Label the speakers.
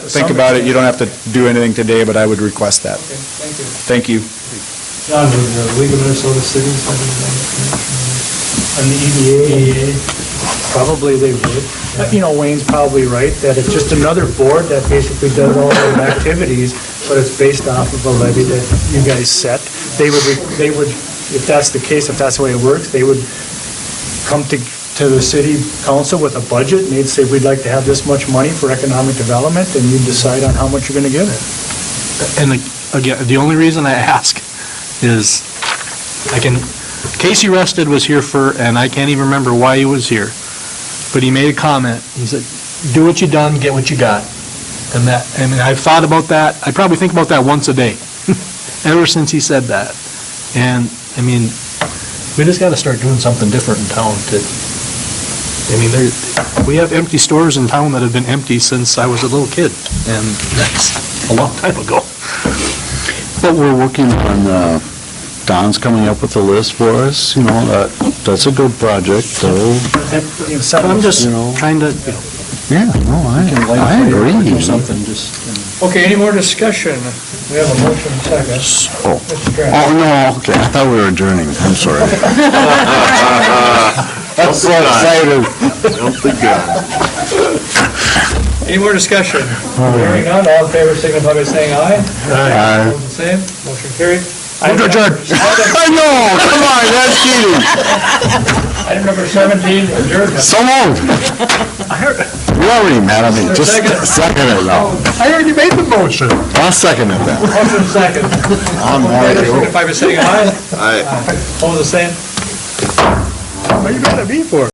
Speaker 1: think about it. You don't have to do anything today, but I would request that.
Speaker 2: Okay, thank you.
Speaker 1: Thank you.
Speaker 2: John, with the League of Minnesota Cities, have you done on the EDA? Probably they would. But, you know, Wayne's probably right, that it's just another board that basically does all their activities, but it's based off of a levy that you guys set. They would, they would, if that's the case, if that's the way it works, they would come to, to the city council with a budget, and they'd say, we'd like to have this much money for economic development, and you'd decide on how much you're gonna give it.
Speaker 3: And again, the only reason I ask is, I can, Casey Rested was here for, and I can't even remember why he was here, but he made a comment. He said, "Do what you done, get what you got." And that, and I've thought about that, I probably think about that once a day, ever since he said that. And, I mean, we just gotta start doing something different in town to, I mean, there, we have empty stores in town that have been empty since I was a little kid, and that's a long time ago.
Speaker 4: But we're working on, uh, Don's coming up with a list for us, you know, that, that's a good project, so,
Speaker 3: But I'm just
Speaker 4: You know?
Speaker 3: trying to,
Speaker 4: yeah, no, I, I agree.
Speaker 3: or something, just,
Speaker 2: Okay, any more discussion? We have a motion second.
Speaker 4: Oh,
Speaker 2: Mr. Kraft.
Speaker 4: oh, no, okay, I thought we were adjourning, I'm sorry. That's so excited.
Speaker 2: Any more discussion? Hearing none, all in favor, signify by saying aye.
Speaker 4: I
Speaker 2: Opposed, the Same, motion carried. Item
Speaker 4: to adjourn.
Speaker 2: number- Item
Speaker 4: know, come on, that's cheating,
Speaker 2: item number 17, adjournment.
Speaker 4: so long. You're already mad at me, just
Speaker 2: Second.
Speaker 4: second it now.
Speaker 3: I already made the motion.
Speaker 4: I'll second it then.
Speaker 2: Motion second.
Speaker 4: I'm
Speaker 2: All in favor,
Speaker 4: already-
Speaker 2: signify by saying aye. Aye. Opposed, the same. What are you mad at me for?